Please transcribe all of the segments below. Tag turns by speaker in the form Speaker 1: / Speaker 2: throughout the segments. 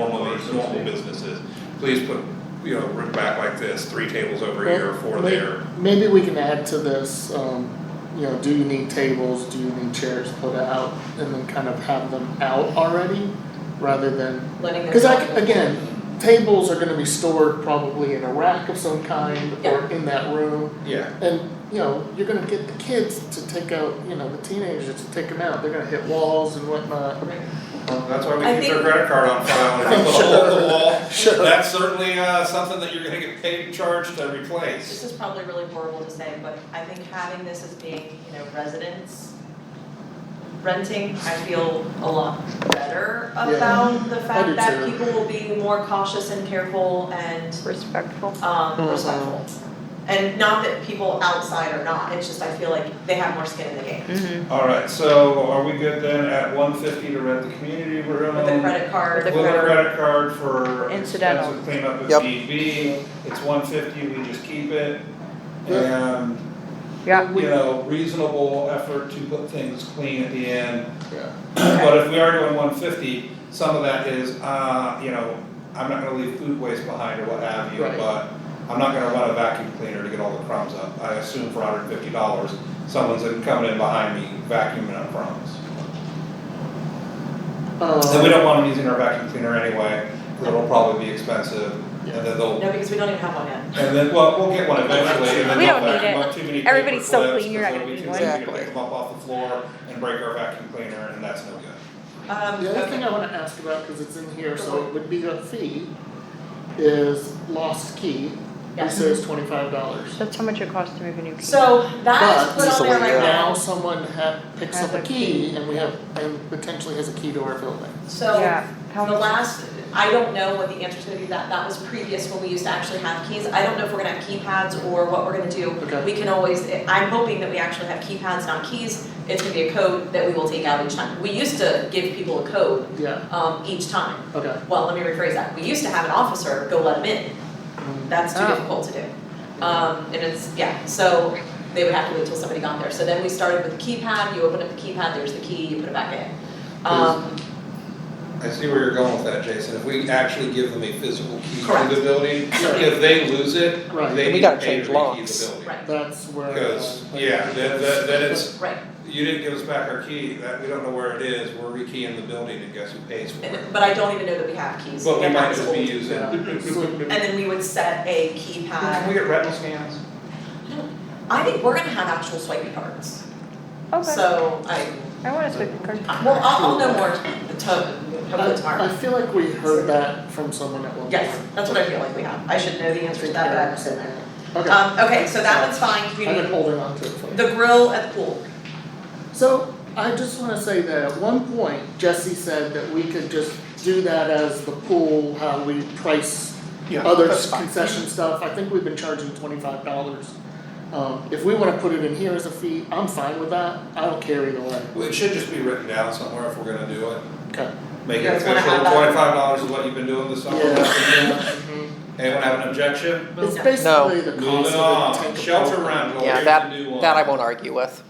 Speaker 1: normal business is, please put, you know, rip back like this, three tables over here, four
Speaker 2: May-
Speaker 1: there.
Speaker 2: Maybe we can add to this, um, you know, do you need tables, do you need chairs put out, and then kind of have them out already, rather than,
Speaker 3: letting them.
Speaker 2: cause I, again, tables are gonna be stored probably in a rack of some kind, or in that room,
Speaker 1: Yeah.
Speaker 2: and, you know, you're gonna get the kids to take out, you know, the teenagers to take them out, they're gonna hit walls and whatnot.
Speaker 3: Right.
Speaker 1: That's why
Speaker 3: I
Speaker 1: we keep their
Speaker 3: think-
Speaker 1: credit card on file, if you put a hole in the wall,
Speaker 2: Sure,
Speaker 1: that's certainly, uh, something that you're gonna get paid, charged to replace.
Speaker 3: This is probably really horrible to say, but I think having this as being, you know, residents renting, I feel a lot better
Speaker 2: Yeah.
Speaker 3: about the
Speaker 2: do
Speaker 3: fact that
Speaker 2: too.
Speaker 3: people will be more cautious and careful and
Speaker 4: respectful.
Speaker 3: um
Speaker 2: Mhm.
Speaker 3: respectful. And not that people outside are not, it's just I feel like they have more skin in the game.
Speaker 4: Mm-hmm.
Speaker 1: Alright, so are we good then at one fifty to rent the community room?
Speaker 3: With a credit
Speaker 4: With
Speaker 3: card,
Speaker 4: a
Speaker 1: With a
Speaker 4: credit-
Speaker 1: credit card for
Speaker 4: Incidental.
Speaker 1: expensive cleanup if
Speaker 5: Yep.
Speaker 1: need be, it's one fifty, we just keep it.
Speaker 2: Yeah.
Speaker 1: And
Speaker 4: Yeah,
Speaker 1: you know, reasonable effort to put things clean at the end.
Speaker 2: yeah,
Speaker 1: But if we are doing one fifty, some of that is, uh, you know, I'm not gonna leave food waste behind or what have you,
Speaker 2: Right.
Speaker 1: but I'm not gonna run a vacuum cleaner to get all the crumbs up. I assume for hundred and fifty dollars, someone's in- coming in behind me vacuuming up crumbs. And we
Speaker 2: um,
Speaker 1: don't want them using our vacuum cleaner anyway, it it'll probably be expensive. And
Speaker 2: Yeah.
Speaker 1: then they'll,
Speaker 3: no, because we don't even have one yet. Um,
Speaker 1: and then, well, we'll get one eventually, and then
Speaker 4: We
Speaker 1: they'll
Speaker 4: don't need
Speaker 1: vacuum
Speaker 4: it.
Speaker 1: up too many paper
Speaker 4: Everybody's so
Speaker 1: clips,
Speaker 4: clean, you're not
Speaker 1: and then we
Speaker 4: gonna need
Speaker 1: can continue to
Speaker 5: one.
Speaker 1: pick them up off the floor and break our vacuum cleaner, and that's no good.
Speaker 3: Um,
Speaker 2: the other
Speaker 3: okay.
Speaker 2: thing I wanna ask about, cause it's in here, so it would be a fee, is lost key,
Speaker 3: Yeah.
Speaker 2: It says twenty-five dollars.
Speaker 4: that's how much it costs to move a new key.
Speaker 3: So that is
Speaker 2: But-
Speaker 3: put on there
Speaker 5: So,
Speaker 3: right
Speaker 5: yeah.
Speaker 2: Now
Speaker 3: now,
Speaker 2: someone ha picks up a key and we have, and potentially has a key to our building.
Speaker 3: so
Speaker 4: Yeah, how
Speaker 3: The
Speaker 4: much,
Speaker 3: last, I don't know what the answer's gonna be, that, that was previous when we used to actually have keys, I don't know if we're gonna have keypads or what we're gonna do.
Speaker 2: Okay.
Speaker 3: We can always, I'm hoping that we actually have keypads, not keys, it's gonna be a code that we will take out each time. We used to give people a code,
Speaker 2: Yeah,
Speaker 3: um, each time,
Speaker 2: okay.
Speaker 3: well, let me rephrase that, we used to have an officer go let them in,
Speaker 2: Mm,
Speaker 3: that's too
Speaker 4: Oh.
Speaker 3: difficult to do. Um, and it's, yeah, so they would have to wait till somebody got there, so then we started with the keypad, you open up the keypad, there's the key, you put it back in. Um,
Speaker 1: I see where you're going with that, Jason, if we actually give them a physical key to
Speaker 3: Correct.
Speaker 1: the building,
Speaker 2: Right.
Speaker 1: if they lose it,
Speaker 2: Right.
Speaker 1: they
Speaker 5: We
Speaker 1: need to
Speaker 5: gotta
Speaker 1: pay
Speaker 5: change
Speaker 1: to rekey the
Speaker 5: locks.
Speaker 1: building.
Speaker 3: right,
Speaker 2: That's where. uh,
Speaker 1: Cause, yeah, that, that, that it's,
Speaker 3: right,
Speaker 1: you didn't give us back our key, that, we don't know where it is, we're rekeying the building and guess who pays for it?
Speaker 3: And- But I don't even know that we have keys.
Speaker 1: But we
Speaker 3: and that
Speaker 1: might
Speaker 3: was
Speaker 1: just be
Speaker 3: old.
Speaker 1: using.
Speaker 2: Yeah.
Speaker 1: Can
Speaker 3: And then we would set a
Speaker 1: we
Speaker 3: keypad.
Speaker 1: get retinal scans?
Speaker 3: I think we're gonna have actual swipey cards.
Speaker 4: okay,
Speaker 3: So uh, I,
Speaker 4: I want a swiping card.
Speaker 3: well, I'll, I'll know more to,
Speaker 2: I,
Speaker 3: hopefully
Speaker 2: I
Speaker 3: tomorrow.
Speaker 2: feel like we heard that from someone at one point.
Speaker 3: Yes, that's what I feel like we have. I should know the
Speaker 2: I
Speaker 3: answer to
Speaker 2: think
Speaker 3: that,
Speaker 2: Karen
Speaker 3: but I haven't
Speaker 2: said
Speaker 3: said that.
Speaker 2: that. Okay,
Speaker 3: Um, okay, so that one's fine,
Speaker 2: I've been
Speaker 3: community.
Speaker 2: holding on to it for.
Speaker 3: The grill at the pool.
Speaker 2: So I just wanna say that at one point Jesse said that we could just do that as the pool, how we price other concession stuff. I think we've been charging twenty-five dollars. Um, if we wanna put it in here as a fee, I'm fine with that. I don't care either way.
Speaker 1: Well, It should just be written down somewhere if we're gonna do it,
Speaker 2: Okay.
Speaker 1: make
Speaker 3: You
Speaker 1: it
Speaker 3: guys wanna
Speaker 1: official,
Speaker 3: have that?
Speaker 1: twenty-five dollars is what you've been doing this summer.
Speaker 2: Yeah.
Speaker 1: Anyone have an objection?
Speaker 2: Mm-hmm. It's
Speaker 3: No.
Speaker 2: basically the cost
Speaker 1: Moving
Speaker 2: of
Speaker 1: on,
Speaker 2: it.
Speaker 1: shelter rental,
Speaker 5: Yeah,
Speaker 1: here's
Speaker 5: that-
Speaker 1: the new one.
Speaker 5: That I won't argue with.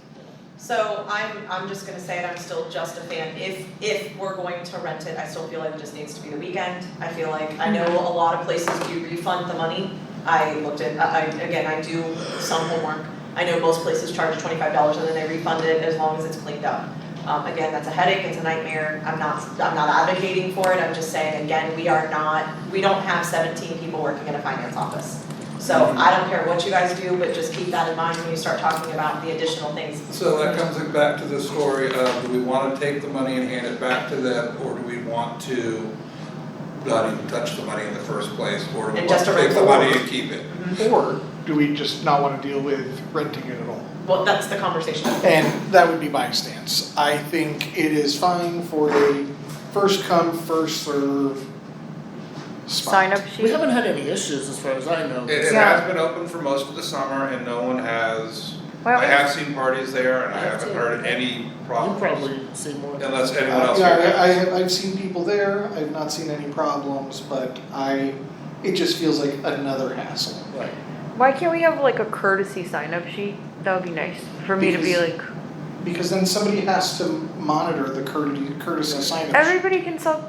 Speaker 3: So I'm, I'm just gonna say it, I'm still just a fan, if, if we're going to rent it, I still feel like it just needs to be the weekend. I feel like, I know a lot of places do refund the money, I looked at, I, I- again, I do some homework. I know most places charge twenty-five dollars and then they refund it as long as it's cleaned up. Um, again, that's a headache, it's a nightmare, I'm not, I'm not advocating for it, I'm just saying, again, we are not, we don't have seventeen people working in a finance office. So I don't care what you guys do, but just keep that in mind when you start talking about the additional things
Speaker 1: So that comes back to the story of, do we wanna take the money and hand it back to them, or do we want to not even touch the money in the first place, or do we want
Speaker 3: And just
Speaker 1: to
Speaker 3: a
Speaker 1: take the
Speaker 3: reward.
Speaker 1: money and keep it?
Speaker 6: Or do we just not want to deal with renting it at all?
Speaker 3: Well, that's the conversation.
Speaker 6: And that would be my stance. I think it is fine for the first come, first serve spot.
Speaker 4: Sign up
Speaker 2: We
Speaker 4: sheet,
Speaker 2: haven't had any issues as far as I know.
Speaker 1: It, it
Speaker 4: Yeah.
Speaker 1: has been open for most of the summer and no one has,
Speaker 4: Well,
Speaker 1: I have seen parties there and I
Speaker 2: I have
Speaker 1: haven't
Speaker 2: too.
Speaker 1: heard any
Speaker 2: You
Speaker 1: problems.
Speaker 2: probably see more.
Speaker 1: Unless anyone
Speaker 6: Uh,
Speaker 1: else here
Speaker 6: Yeah, I,
Speaker 1: has.
Speaker 6: I, I've seen people there, I've not seen any problems, but I, it just feels like another hassle.
Speaker 2: Right.
Speaker 4: why can't we have like a courtesy sign up sheet? That would be nice, for me to be like,
Speaker 6: Because then somebody has to monitor the courtesy, courtesy sign.
Speaker 4: everybody can self